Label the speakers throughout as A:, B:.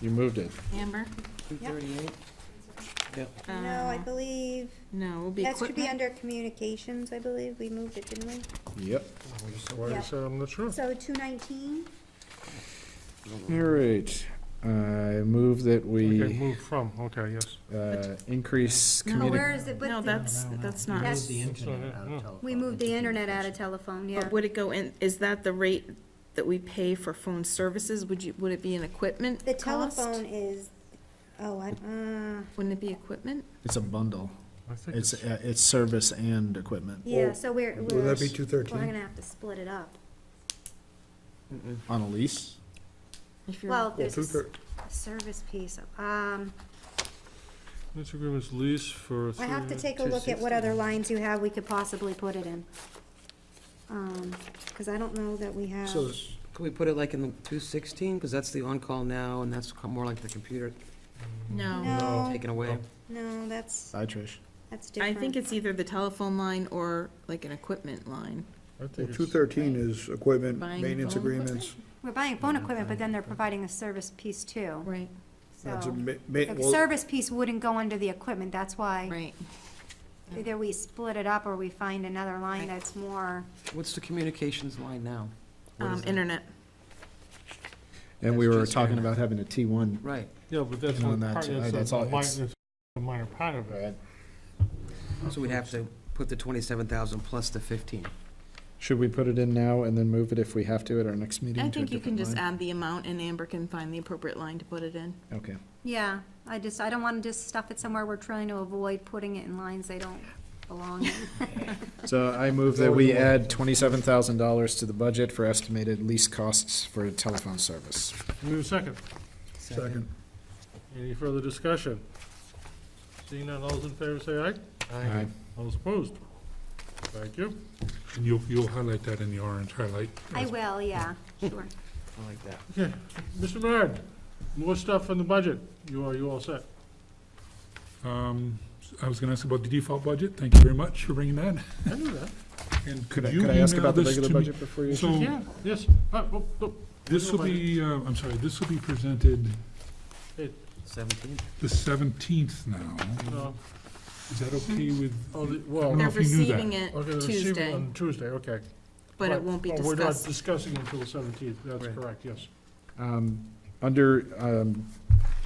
A: You moved it.
B: Amber?
C: Two thirty-eight? Yep.
D: No, I
B: Uh,
D: believe,
B: No, will be
D: that should be
B: equipment.
D: under communications, I believe, we moved it, didn't we?
A: Yep.
D: you Yeah.
E: I said, I'm not
B: Oh.
E: sure.
D: So two nineteen,
A: All right. I move that
E: Okay,
A: we
E: move from, okay, yes.
A: uh, increase
B: No,
A: communi-
D: Oh, where is it with
B: No,
D: the,
B: that's, that's
C: We
B: not.
D: That's-
C: moved the internet out of telephone.
D: we moved the
C: into
D: internet out of
C: communications.
D: telephone, yeah.
B: But would it go in, is that the rate that we pay for phone services? Would you, would it be an equipment
D: The
B: cost?
D: telephone is, oh, I, uh,
B: Wouldn't it be equipment?
F: It's a bundle.
E: I think
F: It's,
E: it's-
F: uh, it's service and equipment
D: yeah, so we're, we're.
E: Will that be
D: We're
E: 213?
D: gonna have to split it up.
F: on a lease.
B: If you're-
D: Well,
E: Well,
D: there's a
E: two
D: s-
E: thir-
D: a service piece, um,
E: This agreement's lease for.
D: I have to
E: three-
D: take a look at what other lines you have we could possibly put it in. Um, cause I don't know that we have,
C: So could we put it like in the two sixteen, because that's the on-call now, and that's co- more like the computer
B: No,
D: no,
C: taken away?
F: Oh.
D: no, that's,
F: Hi, Trish.
D: that's
B: I
D: different.
B: think it's either the telephone line or like an equipment line.
E: I think
G: Two
E: it's-
G: thirteen is equipment,
B: Buying
G: maintenance
B: phone
G: agreements.
D: We're buying phone equipment, but then they're providing a service piece too,
B: Right,
G: That's
B: Oh.
G: a
D: so.
G: ma- ma-
D: The
G: well,
D: service piece wouldn't go under the equipment, that's why
B: right.
D: either we split it up or we find another
B: Right.
D: line that's more,
C: What's the communications line now? What
B: Um,
C: is that?
B: internet.
F: And we
C: That's
F: were
C: just
F: talking
C: internet.
F: about having a T one.
C: Right,
E: Yeah, but that's
F: And on
E: one
F: that
E: part,
F: too,
E: that's
F: that's
E: a
F: all-
E: minor,
F: it's-
E: that's a minor part of it.
C: so we'd have to put the twenty-seven thousand plus the fifteen.
F: Should we put it in now and then move it if we have to at our next meeting? to
B: I
F: a
B: think you can
F: different
B: just
F: line?
B: add the amount and Amber can find the appropriate line to put it in.
F: Okay.
D: yeah. I just, I don't wanna just stuff it somewhere we're trying to avoid putting it in lines they don't belong in.
F: So I move that we add twenty-seven thousand dollars to the budget for estimated lease costs for telephone service.
E: Move second.
G: second.
E: Any further discussion? Seeing none, all those in favor say aye.
F: Aye.
E: All those opposed? Thank you.
H: And you'll, you'll highlight that in the orange highlight.
D: I will, yeah, sure.
C: I like that.
E: Okay, Mr. Bernard, more stuff on the budget. You are, you all set?
H: Um, I was gonna ask about the default budget, thank you very much for bringing that.
E: I knew that.
H: And
F: Could
H: could
F: I,
H: you
F: could I ask
H: email
F: about the
H: this
F: regular
H: to me?
F: budget before you?
H: So,
E: Yeah, yes. Ah, oh, oh,
H: this will be, uh, I'm sorry, this will be presented
C: Seventeen?
H: the seventeenth now.
E: no.
H: Is that okay with,
E: Oh, the-
H: I
E: well,
H: don't know
B: They're
H: if you knew that.
B: receiving it
E: okay, the receiving
B: Tuesday,
E: on Tuesday, okay.
B: but it won't be
E: Oh, We're not
B: discussed.
E: discussing until the seventeenth, that's
C: Right.
E: correct, yes.
F: Um, Under, um,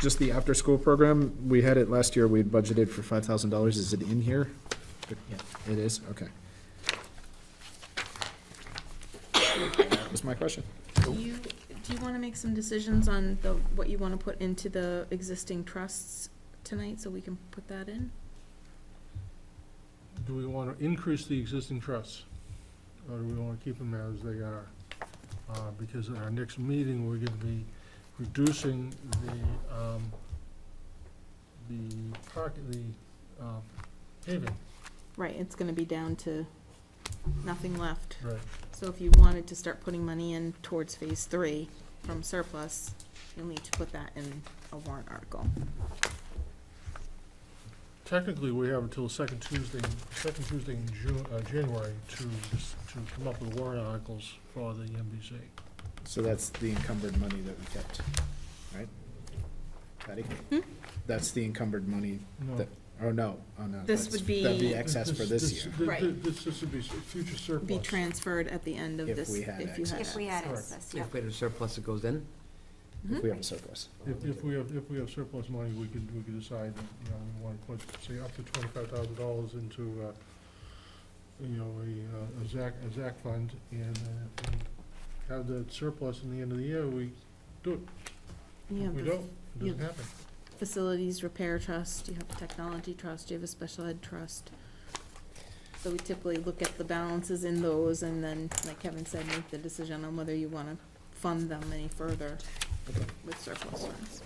F: just the after-school program, we had it last year, we had budgeted for five thousand dollars, is it in here? It is, okay. That's my question.
B: You, do you want to make some decisions on the, what you want to put into the existing trusts tonight, so we can put that in?
E: Do we want to increase the existing trusts? Or do we want to keep them as they are? Uh, Because at our next meeting, we're going to be reducing the, um, the park, the uh, paving.
B: Right, it's gonna be down to nothing left.
E: Right.
B: So if you wanted to start putting money in towards phase three from surplus, you'll need to put that in a warrant article.
E: Technically, we have until second Tuesday, second Tuesday in Ju- uh, January to, to come up with warrant articles for the MBC.
F: So that's the encumbered money that we kept, right? Patty?
B: Hmm?
F: That's the encumbered money,
E: No.
F: That- oh no, oh no.
B: This
F: that's-
B: would be-
F: That'd be excess for this year.
E: th-
B: Right.
E: th- This, this would be s- future surplus.
B: Be transferred at the end of
F: If
B: this,
F: we had
B: if you had.
D: If we had
E: Correct.
D: access, yeah.
C: If we had a surplus that goes in,
F: If we have a surplus.
E: If, if we have, if we have surplus money, we could, we could decide that, you know, we want to put, say, up to twenty-five thousand dollars into, uh, you know, a, uh, a ZAC, a ZAC fund, and, uh, and have the surplus in the end of the year, we do it.
B: You have
E: We
B: the
E: don't, it doesn't
B: yeah.
E: happen.
B: Facilities repair trust, you have a technology trust, you have a special ed trust. So we typically look at the balances in those and then, like Kevin said, make the decision on whether you wanna fund them any further with surplus funds.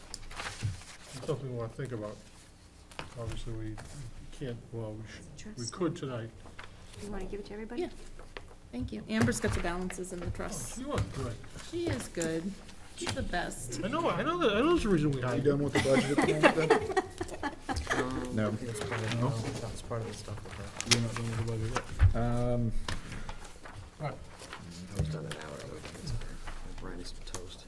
E: It's something we want to think about. Obviously, we can't, well, we should, we
D: Trust.
E: could tonight. Oh,
D: You wanna give it to everybody?
B: Yeah. Thank you. Amber's got the balances in the trusts.
E: You are good.
B: She is good. She's the best.
E: I know, I know, that- I know there's a reason we
G: You
E: hired you.
G: done with the budget at the moment then?
C: um,
F: No.
C: I think it's part of,
F: No.
C: no, it's part of the stuff with that.
F: You're not going to budget
B: Mm-hmm.
F: Um,
C: I was done an hour ago. Brian is toast.